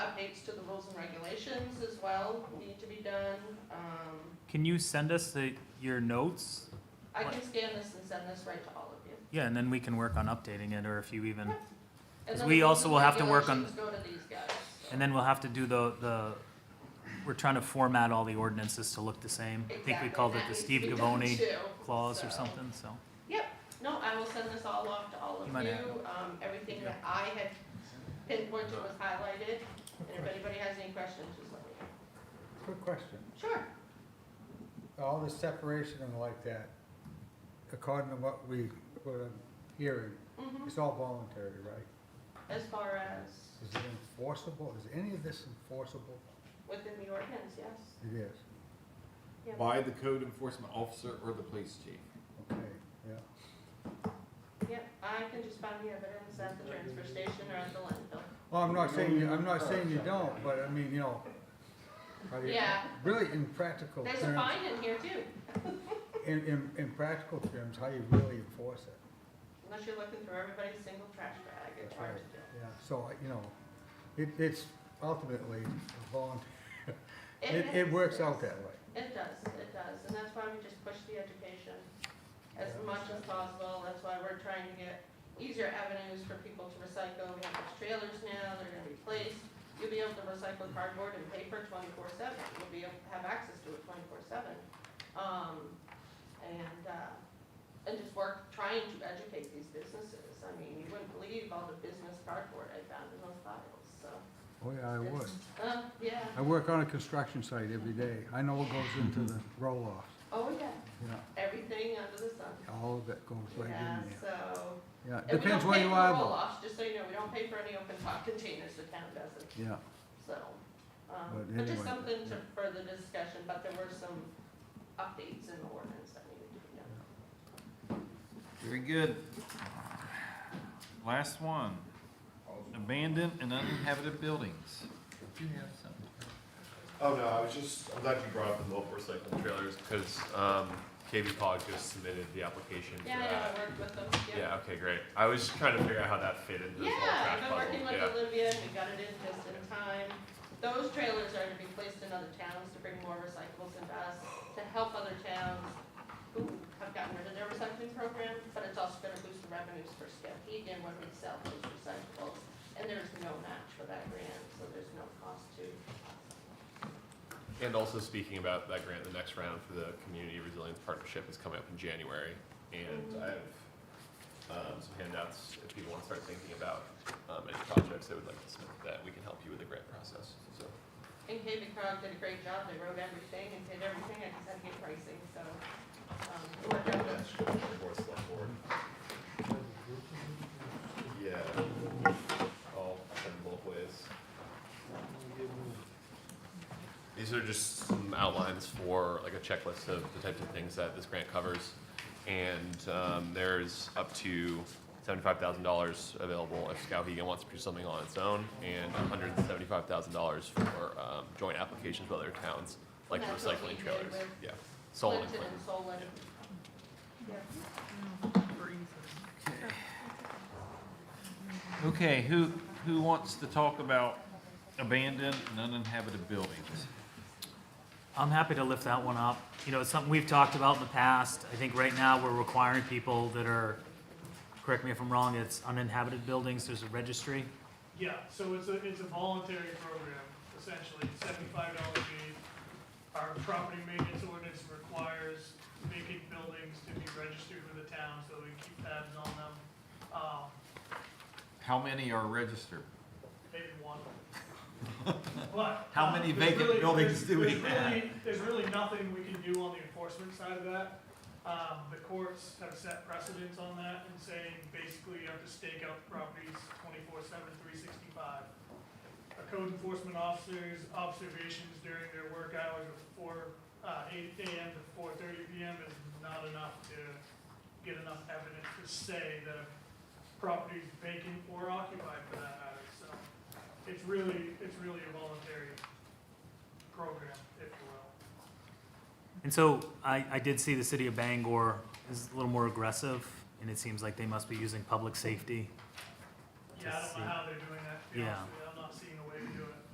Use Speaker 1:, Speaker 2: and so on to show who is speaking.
Speaker 1: updates to the rules and regulations as well need to be done. Um,
Speaker 2: Can you send us the, your notes?
Speaker 1: I can scan this and send this right to all of you.
Speaker 2: Yeah, and then we can work on updating it, or if you even,
Speaker 1: And
Speaker 2: 'Cause
Speaker 1: then
Speaker 2: we
Speaker 1: the rules
Speaker 2: also
Speaker 1: and
Speaker 2: will have to work on-
Speaker 1: regulations Go to these guys. so.
Speaker 2: and then we'll have to do the, the, we're trying to format all the ordinances to look the same. I think we
Speaker 1: Exactly,
Speaker 2: called it
Speaker 1: that
Speaker 2: the
Speaker 1: needs to
Speaker 2: Steve
Speaker 1: be done
Speaker 2: Gavoni
Speaker 1: too,
Speaker 2: clause or
Speaker 1: so.
Speaker 2: something, so.
Speaker 1: No, I will send this all off to all of
Speaker 2: You might
Speaker 1: you.
Speaker 2: have-
Speaker 1: Um, everything that I had pinpointed was highlighted. And if anybody has any questions, just let me know.
Speaker 3: Quick question,
Speaker 1: Sure.
Speaker 3: all the separation and like that, according to what we, what I'm hearing,
Speaker 1: Mhm.
Speaker 3: it's all voluntary, right?
Speaker 1: As far as
Speaker 3: Is it enforceable, is any of this enforceable?
Speaker 1: within the ordinance, yes.
Speaker 3: It is,
Speaker 4: by the code enforcement officer or the police chief.
Speaker 3: okay, yeah.
Speaker 1: Yep, I can just find the evidence at the transfer station or at the landfill.
Speaker 3: Well, I'm not saying, you- I'm not saying you don't, but I mean, you know, how do you-
Speaker 1: Yeah.
Speaker 3: really in practical
Speaker 1: There's a
Speaker 3: terms,
Speaker 1: fine in here too,
Speaker 3: in, in, in practical terms, how you really enforce it,
Speaker 1: unless you're looking through everybody's single trash bag, it's
Speaker 3: That's
Speaker 1: hard to
Speaker 3: right.
Speaker 1: do.
Speaker 3: yeah, so, you know, it, it's ultimately voluntary, it,
Speaker 1: is-
Speaker 3: it works out that way.
Speaker 1: It does, it does, and that's why we just push the education as
Speaker 3: Yeah.
Speaker 1: much as possible, that's why we're trying to get easier avenues for people to recycle, we have those trailers now, they're gonna be placed. You'll be able to recycle cardboard and paper twenty-four seven, you'll be able to have access to it twenty-four seven. Um, and, uh, and just work, trying to educate these businesses, I mean, you wouldn't believe all the business cardboard I found in those piles, so.
Speaker 3: Oh, yeah, I would.
Speaker 1: Uh, yeah,
Speaker 3: I work on a construction site every day. I know what goes into the roll-offs,
Speaker 1: oh, yeah,
Speaker 3: you know,
Speaker 1: everything under the sun.
Speaker 3: all of it goes right
Speaker 1: Yeah,
Speaker 3: in there.
Speaker 1: so,
Speaker 3: Yeah,
Speaker 1: and we
Speaker 3: depends
Speaker 1: don't
Speaker 3: where
Speaker 1: pay
Speaker 3: you
Speaker 1: for
Speaker 3: are
Speaker 1: roll
Speaker 3: though.
Speaker 1: offs, just so you know, we don't pay for any open top containers, the town doesn't,
Speaker 3: Yeah,
Speaker 1: so. Um,
Speaker 3: But
Speaker 1: but just
Speaker 3: anyway,
Speaker 1: something to
Speaker 3: yeah.
Speaker 1: further discussion, but there were some updates in the ordinance that needed to be done.
Speaker 5: Very good. Last one, abandoned and uninhabited buildings. Do you have something?
Speaker 6: Oh, no, I was just, I'm glad you brought up the mobile recycling trailers, because, um, KB Pog just submitted the application for
Speaker 1: Yeah, I know, I
Speaker 6: that.
Speaker 1: worked with them, yeah.
Speaker 6: Yeah, okay, great. I was just trying to figure out how that fit into this whole
Speaker 1: Yeah,
Speaker 6: trash
Speaker 1: I've been
Speaker 6: puzzle,
Speaker 1: working
Speaker 6: yeah.
Speaker 1: with Olivia, and we got it in just in time. Those trailers are to be placed in other towns to bring more recyclables into us, to help other towns who have gotten rid of their recycling program, but it's also gonna boost the revenues for Skowhegan when we sell those recyclables. And there's no match for that grant, so there's no cost to us.
Speaker 6: And also speaking about that grant, the next round for the Community Resilience Partnership is coming up in January.
Speaker 1: Mm-hmm.
Speaker 6: And I have, um, some handouts if people want to start thinking about, um, any projects they would like to submit that we can help you with the grant process, so.
Speaker 1: And KB Cog did a great job, they wrote everything and did everything, I just had to get pricing, so, um, it worked out well.
Speaker 6: Board, select board. Yeah, all in both ways. These are just some outlines for like a checklist of the types of things that this grant covers. And um, there's up to seventy-five thousand dollars available if Skowhegan wants to do something on its own, and hundred and seventy-five thousand dollars for um, joint applications with other towns, like
Speaker 1: That's what we
Speaker 6: recycling
Speaker 1: did
Speaker 6: trailers.
Speaker 1: with
Speaker 6: Yeah, Solid and
Speaker 1: Clinton
Speaker 6: Clinton.
Speaker 1: and Solon. Yeah.
Speaker 5: Okay, who, who wants to talk about abandoned and uninhabited buildings?
Speaker 2: I'm happy to lift that one up. You know, it's something we've talked about in the past. I think right now we're requiring people that are, correct me if I'm wrong, it's uninhabited buildings, there's a registry.
Speaker 7: Yeah, so it's a, it's a voluntary program, essentially, seventy-five dollars a year. Our property maintenance ordinance requires vacant buildings to be registered with the town, so we keep tabs on them. Um,
Speaker 5: How many are registered?
Speaker 7: maybe one. But.
Speaker 5: How
Speaker 7: uh,
Speaker 5: many
Speaker 7: there's
Speaker 5: vacant
Speaker 7: really-
Speaker 5: buildings do we
Speaker 7: there's- there's
Speaker 5: have?
Speaker 7: really- There's really nothing we can do on the enforcement side of that. Um, the courts have set precedents on that and saying basically you have to stake out the properties 24/7, 365. A code enforcement officer's observations during their work hours of four, uh, eight AM to four thirty PM is not enough to get enough evidence to say that a property's vacant or occupied for that matter, so it's really, it's really a voluntary program, if you will.
Speaker 2: And so I, I did see the city of Bangor is a little more aggressive, and it seems like they must be using public safety.
Speaker 7: Yeah, I don't know how they're doing that, to be honest with you.